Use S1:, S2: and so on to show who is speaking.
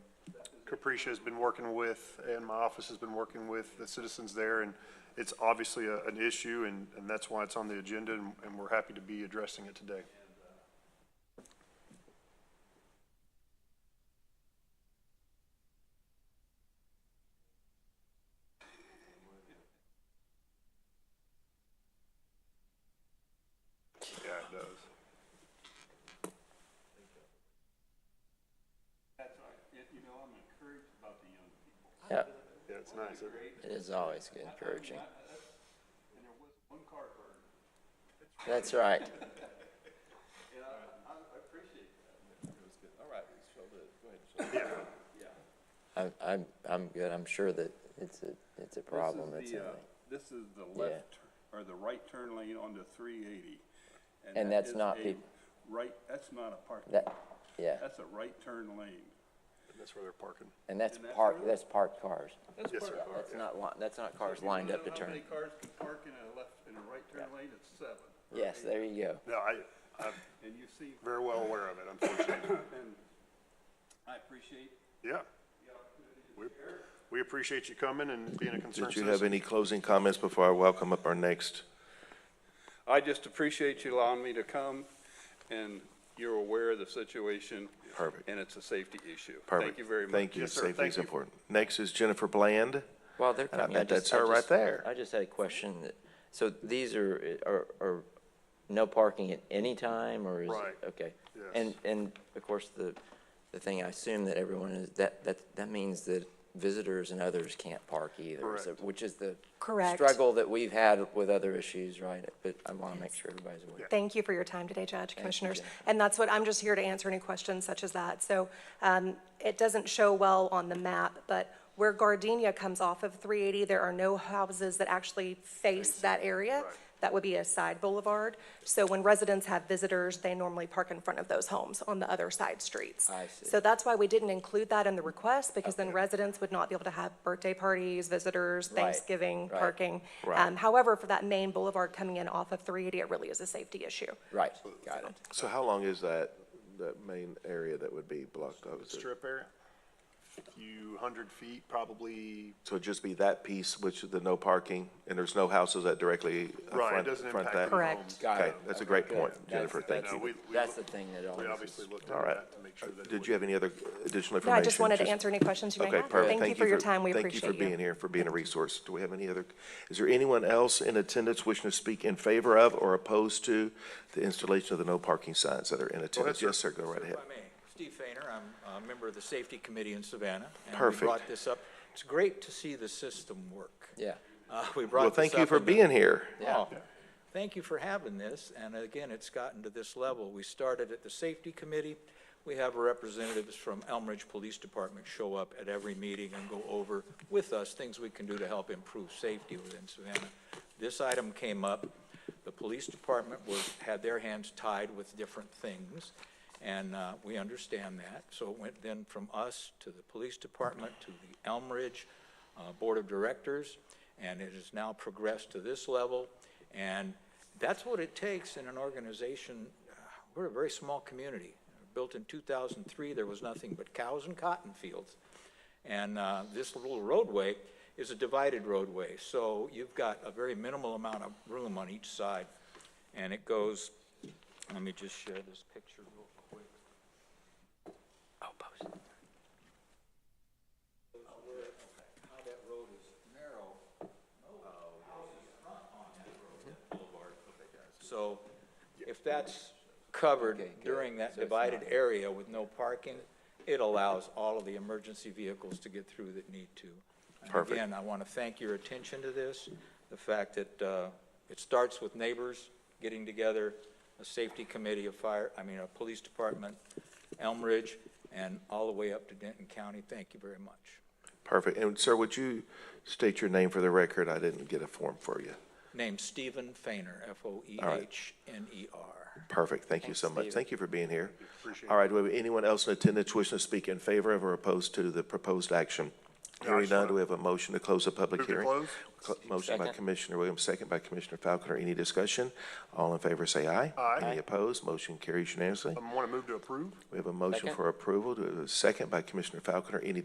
S1: Capricia has been working with, and my office has been working with the citizens there, and it's obviously a, an issue, and, and that's why it's on the agenda, and, and we're happy to be addressing it today. Yeah, it does.
S2: That's right. Yet, You know, I'm encouraged about the young people.
S3: Yeah,
S1: Yeah, it's nice. isn't it?
S3: it is always good encouraging.
S2: I- that's- And there was one car burned,
S3: That's right.
S2: and I, I I appreciate that.
S4: All right, so the, go ahead, so
S3: I'm, I'm, I'm good. I'm sure that it's a, it's a problem.
S4: This is
S3: It's
S4: the, uh,
S3: a-
S4: This is the left, tur- or the right turn lane on the three eighty.
S3: And that's not peop-
S4: Right, that's not a parking,
S3: That, yeah,
S4: that's a right turn lane.
S1: That's where they're parking.
S3: and that's
S4: and that's
S3: parked,
S4: road.
S3: that's parked cars.
S1: Yes, sir.
S3: That's not, li- that's not cars
S4: You wanna
S3: lined up
S4: know
S3: to
S4: how
S3: turn.
S4: many cars can park in a left, in a right turn lane? It's seven. or
S3: Yes,
S4: eight.
S3: there you go.
S1: No, I, I'm
S4: And you see,
S1: very well aware of it, unfortunately.
S4: and I appreciate
S1: Yeah. We, we appreciate you coming and being a concerned
S5: Did you have
S1: citizen.
S5: any closing comments before I welcome up our next?
S4: I just appreciate you allowing me to come, and you're aware of the situation.
S5: Perfect.
S4: And it's a safety issue. Thank
S5: Perfect.
S4: you very much.
S5: Thank you.
S1: Yes, sir.
S5: Safety
S1: Thank
S5: is
S1: you.
S5: important. Next is Jennifer Bland.
S3: Well, they're
S5: And I
S3: coming.
S5: bet
S3: just-
S5: that's her right
S3: just-
S5: there.
S3: I just had a question. that- So these are, are, are no parking at any time or is? it-
S1: Right.
S3: Okay.
S1: Yes.
S3: And, and of course, the, the thing I assume that everyone is, that, that, that means that visitors and others can't park either. so-
S1: Correct.
S3: Which is the.
S6: Correct.
S3: Struggle that we've had with other issues, right? But I want to make sure everybody's aware.
S6: Thank you for your time today, Judge, Commissioners.
S3: Jennifer.
S6: And that's what, I'm just here to answer any questions such as that. So um, it doesn't show well on the map, but where Gardenia comes off of 380, there are no houses that actually face that area. That would be a side boulevard. So when residents have visitors, they normally park in front of those homes on the other side streets.
S3: I see.
S6: So that's why we didn't include that in the request, because then residents would not be able to have birthday parties, visitors,
S3: Right,
S6: Thanksgiving,
S3: right.
S6: parking.
S5: Right.
S6: Um, However, for that main boulevard coming in off of 380, it really is a safety issue.
S3: Right, got it.
S5: So how long is that, that main area that would be blocked off? Is it-
S1: Strip area, few hundred feet, probably,
S5: So it'd just be that piece, which is the no parking, and there's no houses that directly uh,
S1: right, it
S5: front,
S1: doesn't
S5: front
S1: impact
S5: that?
S1: the
S6: Correct.
S1: homes.
S3: Got
S5: Okay,
S3: it.
S5: that's a great
S3: Okay,
S5: point,
S3: good.
S5: Jennifer.
S3: That's-
S5: Thank
S1: No,
S5: you.
S1: we, we,
S3: That's the
S1: look-
S3: thing that
S1: we
S3: always
S1: obviously
S3: is-
S1: looked
S5: All
S1: at
S5: right.
S1: that to make sure that. it
S5: Did
S1: would-
S5: you have any other additional information?
S6: No, I just wanted to
S5: Just-
S6: answer any questions you may
S5: Okay,
S6: have.
S5: perfect.
S6: Thank you for your time, we
S5: Thank
S6: appreciate
S5: you for being here, for being a resource. Do we have any other, is there anyone else in attendance wishing to speak in favor of or opposed to the installation of the no parking signs that are in attendance?
S1: sir.
S5: Yes, sir, go right ahead.
S7: If I may, Steve Fainer, I'm a member of the Safety Committee in Savannah.
S5: Perfect.
S7: And we brought this up. It's great to see the system work.
S3: Yeah.
S7: Uh, We brought
S5: Well,
S7: this
S5: thank you
S7: up
S5: for
S7: in the-
S5: being here.
S3: Yeah.
S7: Oh, Thank you for having this, and again, it's gotten to this level. We started at the Safety Committee. We have representatives from Elm Ridge Police Department show up at every meeting and go over with us things we can do to help improve safety within Savannah. This item came up. The police department was, had their hands tied with different things, and uh, we understand that. So it went then from us to the police department, to the Elm Ridge uh, Board of Directors, and it has now progressed to this level. And that's what it takes in an organization. We're a very small community. Built in 2003, there was nothing but cows and cotton fields. And uh, this little roadway is a divided roadway, so you've got a very minimal amount of room on each side. And it goes, let me just share this picture real quick. How that road is narrow. So if that's covered during that divided area with no parking, it allows all of the emergency vehicles to get through that need to. And
S5: Perfect.
S7: Again, I want to thank your attention to this, the fact that uh, it starts with neighbors getting together, a safety committee, a fire, I mean, a police department, Elm Ridge, and all the way up to Denton County. Thank you very much.
S5: Perfect. And sir, would you state your name for the record? I didn't get a form for you.
S7: Named Stephen Fainer, E F-O-E-H-N-E-R.
S5: Perfect. Thank you so
S3: Thanks,
S5: much.
S3: Steve.
S5: Thank you for being here. All right, do we have anyone else in attendance wishing to speak in favor of or opposed to the proposed action? Hearing none, do we have a motion to close the public
S1: Move to
S5: hearing?
S1: close.
S5: Cl- Motion by
S3: Second.
S5: Commissioner Williams, second by Commissioner Falconer. Any discussion? All in favor, say aye.
S1: Aye.
S5: Any opposed? Motion carries unanimously.
S1: I want to Um, move to approve.
S5: We have a motion
S3: Um, Second.
S5: for approval. Do we have a second by Commissioner Falconer? Any